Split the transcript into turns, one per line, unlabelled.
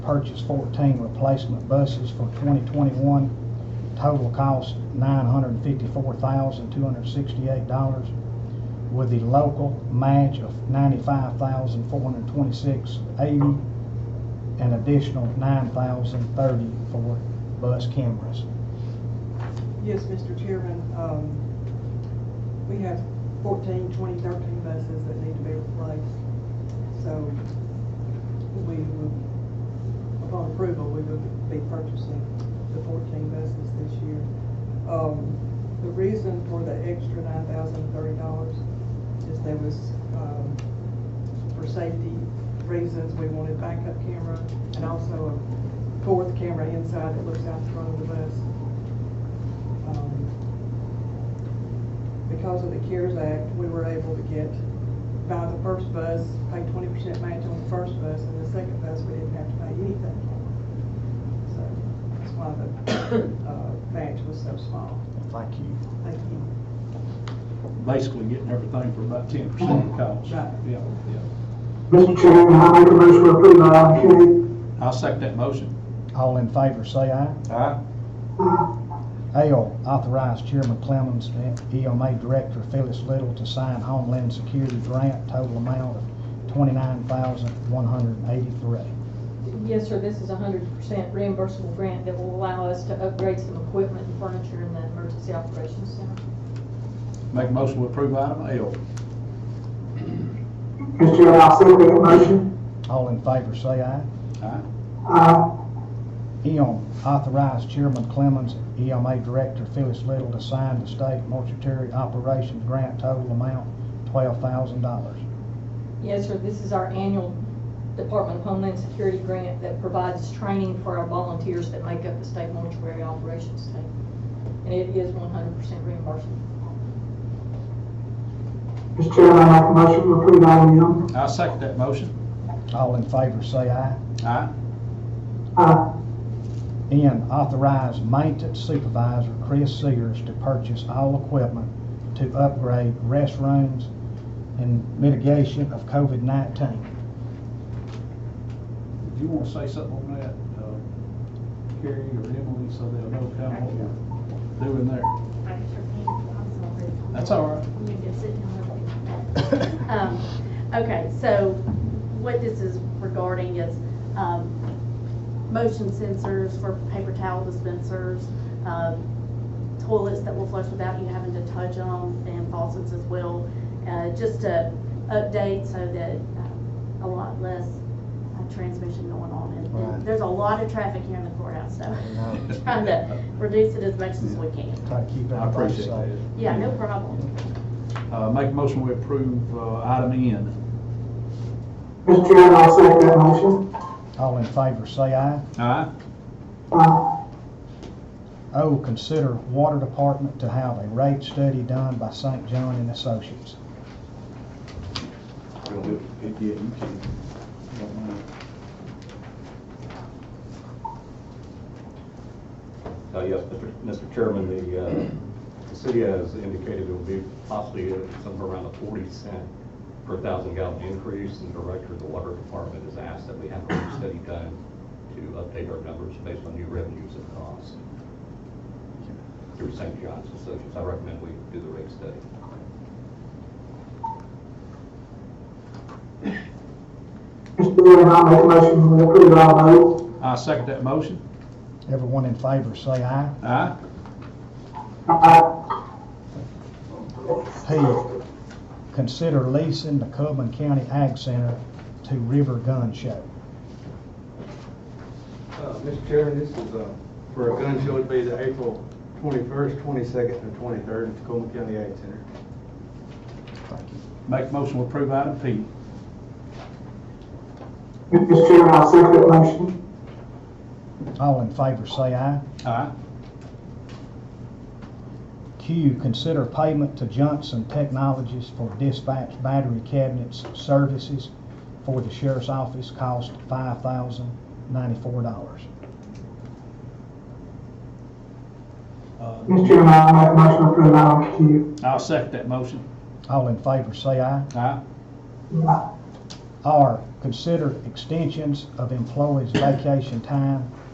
purchase 14 replacement buses for 2021. Total cost $954,268 with the local match of $95,426.80 and additional $9,030 for bus cameras.
Yes, Mr. Chairman, um, we have 14, 20, 13 buses that need to be replaced. So we would, upon approval, we would be purchasing the 14 buses this year. Um, The reason for the extra $9,030 is there was, um, for safety reasons, we wanted backup camera and also a fourth camera inside that looks out the front of the bus. Um, Because of the CARES Act, we were able to get, buy the first bus, pay twenty percent match on the first bus, and the second bus, we didn't have to pay anything. So that's why the, uh, match was so small.
Thank you.
Thank you.
basically getting everything for about ten percent of the cost.
Right.
Yeah, yeah.
Mr. Chairman, I make a motion to approve item
I'll second that motion.
All in favor, say aye.
Aye.
Uh,
L, authorize Chairman Clemmons and EMA Director Phyllis Little to sign Homeland Security Grant, total amount of $29,183.
Yes, sir, this is a hundred percent reimbursable grant that will allow us to upgrade some equipment and furniture in the emergency operations center.
Make a motion to approve item L.
Q. Mr. Chairman, I second that motion. Uh,
All in favor, say aye.
Aye.
Aye.
M, authorize Chairman Clemmons, EMA Director Phyllis Little to sign the State Mortuary Operations Grant, total amount $12,000.
Yes, sir, this is our annual Department of Homeland Security grant that provides training for our volunteers that make up the state mortuary operations team. And it is one hundred percent reimbursable.
Mr. Chairman, I make a motion to approve item M.
I'll second that motion.
All in favor, say aye.
Aye.
Aye.
N, authorize maintenance supervisor Chris Sears to purchase all equipment to upgrade restrooms and mitigation of COVID-19.
Do you want to say something on that, uh, Carrie or Emily, so they'll know kind of what we're doing there?
I sure can. I'm sorry.
That's all right.
You can sit down. Um, Okay, so what this is regarding is um, motion sensors for paper towel dispensers, um, toilets that will flush without you having to touch them, and faucets as well. Uh, Just to update so that um, a lot less uh, transmission going on.
Right.
And There's a lot of traffic here in the courthouse, so
I know.
trying to reduce it as much as we can.
Try to keep
I
everybody
appreciate
safe.
that.
Yeah, no problem.
Uh, make a motion to approve, uh, item N.
Mr. Chairman, I second that motion.
All in favor, say aye.
Aye.
Aye.
O, Oh, consider water department to have a rate study done by St. John and Associates.
Well, it- it- Yeah, you can. Don't mind.
Uh, Yes, Mr. Mr. Chairman, the, uh, the city has indicated it will be possibly somewhere around a 40 cent per thousand gallon increase, and the director of the water department has asked that we have a study done to update our numbers based on new revenues and costs through St. John's Associates. I recommend we do the rate study.
Mr. Chairman, I make a motion to approve item O.
I'll second that motion.
Everyone in favor, say aye.
Aye.
Aye.
P, consider leasing the Coleman County Ag Center to River Gun Show.
Uh, Mr. Chairman, this is uh, for a gun show, it'd be the April 21st, 22nd, and 23rd in Tacoma County Ag Center.
Make a motion to approve item P.
Mr. Chairman, I second that motion.
All in favor, say aye.
Aye.
Q, consider payment to Johnson Technologies for dispatch battery cabinets services for the sheriff's office cost five thousand ninety-four dollars.
Uh,
Mr. Chairman, I make a motion to approve item Q.
I'll second that motion.
Uh,
All in favor, say aye.
Aye.
R, consider extensions of employees' vacation time